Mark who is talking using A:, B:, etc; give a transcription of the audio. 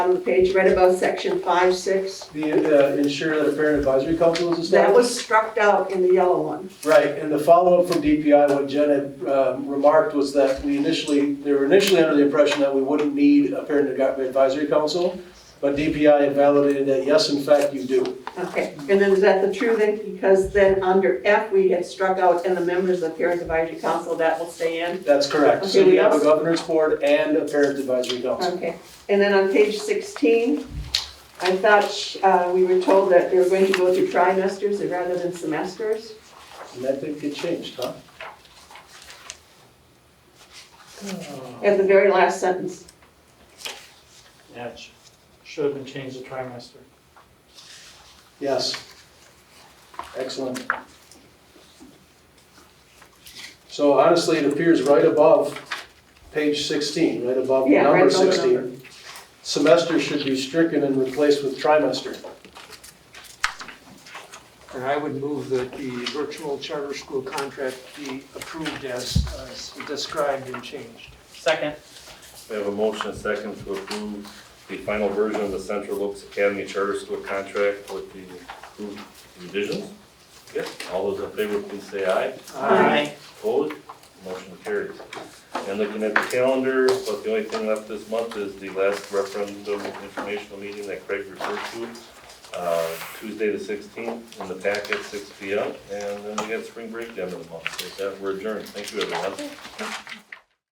A: bottom of the page, right above section five, six.
B: The, uh, ensure that a parent advisory council is established?
A: That was struck out in the yellow one.
B: Right, and the follow-up from DPI, what Jen had um, remarked was that we initially, they were initially under the impression that we wouldn't need a parent advisory council, but DPI had validated that, yes, in fact, you do.
A: Okay, and then is that the true then? Because then under F, we had struck out and the members of the parent advisory council, that will stay in.
B: That's correct. So
A: Okay, we
B: you have a
A: also-
B: governor's board and a parent advisory council.
A: Okay, and then on page 16, I thought uh, we were told that they were going to go to trimesters rather than semesters.
B: And that did get changed, huh?
A: At the very last sentence,
C: Yeah, it sh- should have been changed to trimester.
B: Yes. Excellent. So honestly, it appears right above page 16, right above
A: Yeah, right
B: number
A: above the
B: 16. Semester should be stricken and replaced with trimester.
D: And I would move that the virtual charter school contract be approved as as described and changed.
E: Second.
F: We have a motion and second to approve the final version of the Central Oaks Academy Charter School contract with the approved revisions. Yes, all those in favor, please say aye.
E: Aye.
F: Opposed? Motion carries. And looking at the calendar, but the only thing left this month is the last referendum informational meeting that Craig referred to, uh, Tuesday the sixteenth, in the packet, six P M. And then we got spring break down in the month, so with that, we're adjourned. Thank you, everyone.